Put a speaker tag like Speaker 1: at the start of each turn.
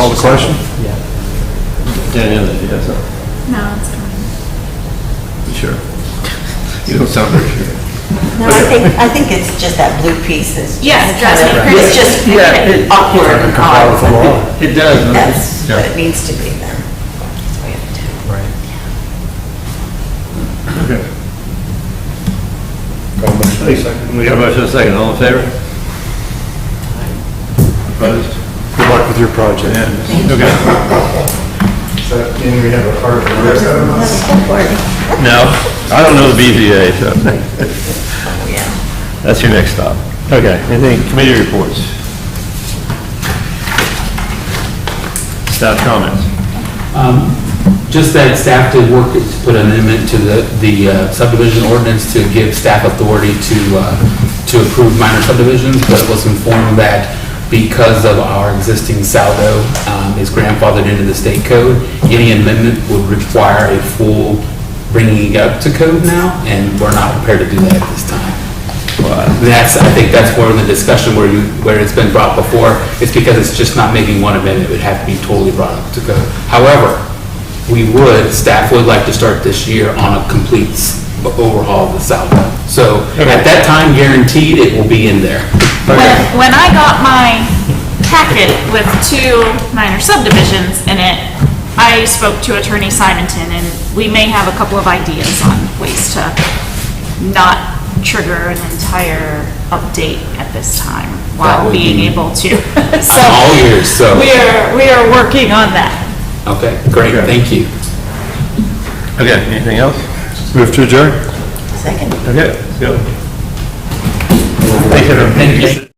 Speaker 1: call the question?
Speaker 2: Yeah.
Speaker 1: Danielle, did you have something?
Speaker 3: No, it's fine.
Speaker 1: You Sure. You don't sound very sure.
Speaker 4: No, I think, I think it's just that blue piece is just.
Speaker 3: Yeah, it drives me
Speaker 4: kinda-
Speaker 3: crazy.
Speaker 4: It's just
Speaker 1: Yeah, it- uh,
Speaker 4: awkward and
Speaker 2: Comply with the
Speaker 4: odd.
Speaker 2: law.
Speaker 1: It does. doesn't it?
Speaker 4: That's what
Speaker 1: Yeah.
Speaker 4: it needs to be then. That's what we have to do.
Speaker 2: Right.
Speaker 1: Okay.
Speaker 5: Call motion in a second.
Speaker 1: We got a motion and a second, all in favor? Opposed?
Speaker 2: Good luck with your project.
Speaker 1: Unanimous. Okay.
Speaker 5: So, and we have a card for the rest of us.
Speaker 1: No, I don't know the BZA, so. That's your next stop. Okay, anything, committee reports? Staff comments?
Speaker 6: Um, Just that staff did work to put an amendment to the the uh, subdivision ordinance to give staff authority to, uh, to approve minor subdivisions, but was informed that because of our existing saldo um, is grandfathered into the state code, any amendment would require a full bringing it up to code now, and we're not prepared to do that at this time. Uh, That's, I think that's where in the discussion where you, where it's been brought before, it's because it's just not making one amendment, it would have to be totally brought up to go. However, we would, staff would like to start this year on a complete s- overhaul of the South. So at that time guaranteed, it will be in there.
Speaker 3: When, when I got my packet with two minor subdivisions in it, I spoke to Attorney Simonton, and we may have a couple of ideas on ways to not trigger an entire update at this time
Speaker 6: That
Speaker 3: while
Speaker 6: would
Speaker 3: being
Speaker 6: be-
Speaker 3: able to. So
Speaker 6: All years, so,
Speaker 3: We are, we are working on that.
Speaker 6: okay, great, thank you.
Speaker 1: Okay, anything else? Move to adjourn?
Speaker 4: Second.
Speaker 1: Okay, let's go. Thank you. everyone.
Speaker 6: Thank you.